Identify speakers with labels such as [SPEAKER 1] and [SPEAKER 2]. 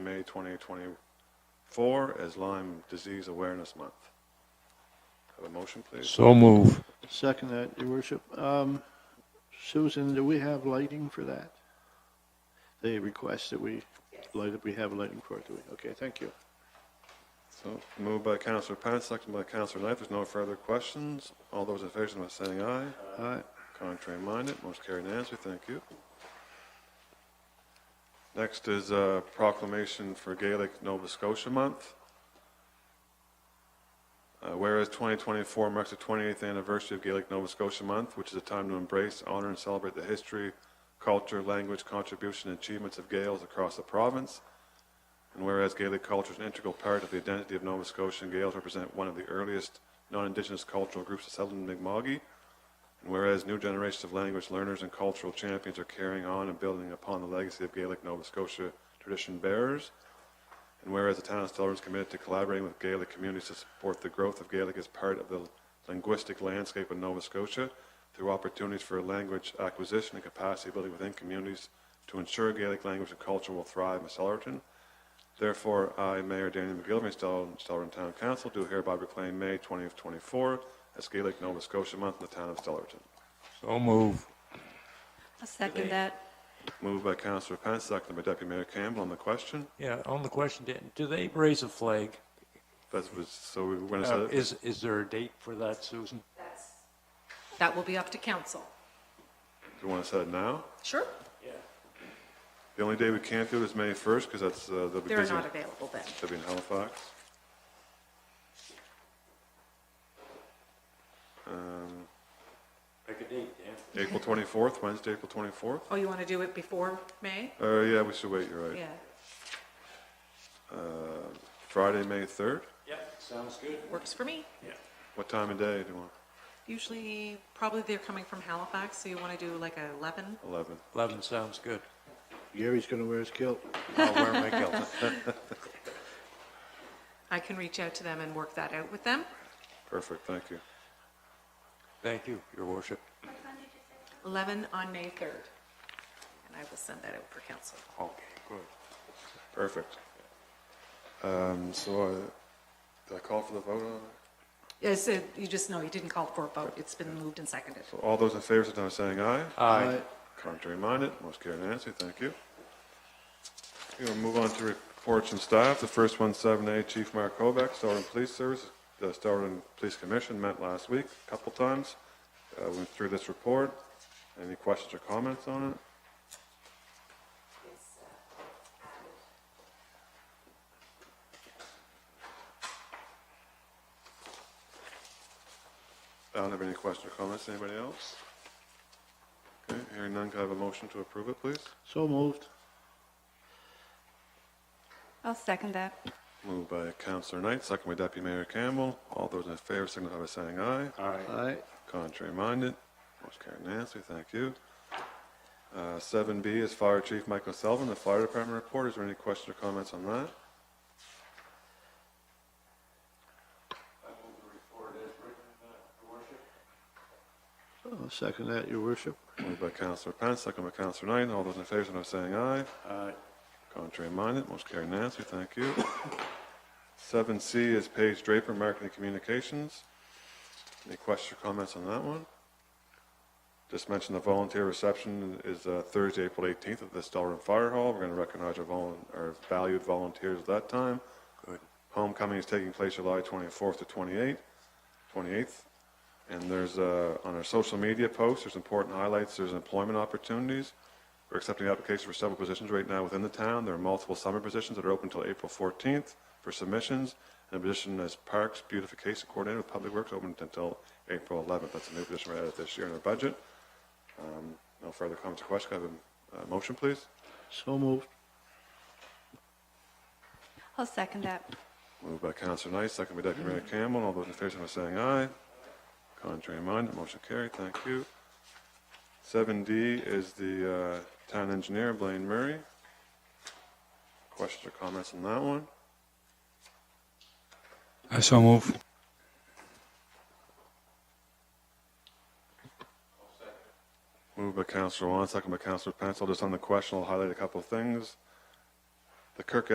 [SPEAKER 1] May 2024 as Lyme Disease Awareness Month. Have a motion, please?
[SPEAKER 2] So move.
[SPEAKER 3] Second that, Your Worship. Um, Susan, do we have lighting for that? They request that we light up, we have lighting for it, do we? Okay, thank you.
[SPEAKER 1] So moved by Counselor Pat, seconded by Counselor Knight. There's no further questions. All those in favor, signify by saying aye.
[SPEAKER 3] All right,
[SPEAKER 1] Contrary minded, motion carried unanimously. Thank you. Next is a proclamation for Gaelic Nova Scotia Month. Uh, Whereas 2024 marks the 28th anniversary of Gaelic Nova Scotia Month, which is a time to embrace, honor, and celebrate the history, culture, language, contribution, and achievements of Gaels across the province. And whereas Gaelic culture is an integral part of the identity of Nova Scotia, and Gaels represent one of the earliest non-Indigenous cultural groups to settle in Mi'kmaq, and whereas new generations of language learners and cultural champions are carrying on and building upon the legacy of Gaelic Nova Scotia tradition bearers, and whereas the town of Stellarton is committed to collaborating with Gaelic communities to support the growth of Gaelic as part of the linguistic landscape of Nova Scotia through opportunities for language acquisition and capacity building within communities to ensure Gaelic language and culture will thrive in Stellarton. Therefore, I, Mayor Daniel McGillivray, Stellarton Stellarton Town Council, do hereby proclaim May 2024 as Gaelic Nova Scotia Month in the town of Stellarton.
[SPEAKER 2] So move.
[SPEAKER 4] I'll second that.
[SPEAKER 1] Moved by Councillor Pence, seconded by Deputy Mayor Campbell on the question.
[SPEAKER 5] Yeah, on the question, do- do they raise a flag?
[SPEAKER 1] That was, so we were going
[SPEAKER 5] Uh,
[SPEAKER 1] to say,
[SPEAKER 5] Is, is there a date for that, Susan?
[SPEAKER 4] That will be up to council.
[SPEAKER 1] you want to set it now?
[SPEAKER 4] Sure.
[SPEAKER 1] The only day we can't do it is May 1st, because that's, uh, they'll be
[SPEAKER 4] They're
[SPEAKER 1] busy.
[SPEAKER 4] not available then.
[SPEAKER 1] They'll be in Halifax. Um,
[SPEAKER 5] Pick a date, Dan.
[SPEAKER 1] April 24th, Wednesday, April 24th?
[SPEAKER 4] Oh, you want to do it before May?
[SPEAKER 1] Uh, yeah, we should wait, you're right.
[SPEAKER 4] Yeah.
[SPEAKER 1] Uh, Friday, May 3rd?
[SPEAKER 5] Yep, sounds good.
[SPEAKER 4] Works for me.
[SPEAKER 1] What time of day do you want?
[SPEAKER 4] Usually, probably they're coming from Halifax, so you want to do like a 11?
[SPEAKER 1] 11.
[SPEAKER 5] 11 sounds good.
[SPEAKER 3] Gary's going to wear his kilt.
[SPEAKER 5] I'll wear my kilt.
[SPEAKER 4] I can reach out to them and work that out with them.
[SPEAKER 1] Perfect, thank you.
[SPEAKER 5] Thank you, your worship.
[SPEAKER 4] 11 on May 3rd. And I will send that out for council.
[SPEAKER 5] Okay, good.
[SPEAKER 1] Perfect. Um, So uh, did I call for the vote on it?
[SPEAKER 4] Yes, it- you just know, you didn't call for a vote. It's been moved and seconded.
[SPEAKER 1] So all those in favor, signify by saying aye.
[SPEAKER 3] All
[SPEAKER 5] Aye.
[SPEAKER 3] right,
[SPEAKER 1] Contrary minded, motion carried unanimously, thank you. Okay, We'll move on to reports from staff. The first one, 7A, Chief Mark Kovac, Stellarton Police Service, the Stellarton Police Commission met last week a couple times, Uh, went through this report. Any questions or comments on it? I don't have any questions or comments. Anybody else? Okay, hearing none, can I have a motion to approve it, please?
[SPEAKER 3] so moved.
[SPEAKER 6] I'll second that.
[SPEAKER 1] Moved by Councillor Knight, second by Deputy Mayor Campbell. All those in favor signify by saying aye.
[SPEAKER 3] All right,
[SPEAKER 1] Contrary minded, motion carried unanimously, thank you. Uh, 7B is Fire Chief Michael Selvin, the Fire Department report. Is there any questions or comments on that?
[SPEAKER 3] I'll second that, Your Worship.
[SPEAKER 1] Moved by Councillor Pence, second by Councillor Knight. All those in favor signify by saying aye.
[SPEAKER 3] Aye.
[SPEAKER 1] Contrary minded, motion carried unanimously, thank you. 7C is Paige Draper, Marketing Communications. Any questions or comments on that one? Just mentioned the volunteer reception is uh, Thursday, April 18th at the Stellarton Fire Hall. We're going to recognize our volun, our valued volunteers at that time.
[SPEAKER 5] Good.
[SPEAKER 1] Homecoming is taking place July 24th to 28th, 28th. And there's, uh, on our social media posts, there's important highlights, there's employment opportunities. We're accepting applications for several positions right now within the town. There are multiple summer positions that are open until April 14th for submissions. And a position as Parks Beautification Coordinator with Public Works open until April 11th. That's a new position we added this year in our budget. Um, No further comments or questions. Can I have a uh, motion, please?
[SPEAKER 3] So moved.
[SPEAKER 6] I'll second that.
[SPEAKER 1] Moved by Councillor Knight, second by Deputy Mayor Campbell. All those in favor, signify by saying aye. Contrary minded, motion carried. Thank you. Seven D is the uh, town engineer, Blaine Murray. Questions or comments on that one?
[SPEAKER 2] I so move.
[SPEAKER 1] Moved by Councillor Wong, second by Councillor Pence. I'll Just on the question, I'll highlight a couple of things. The Kirk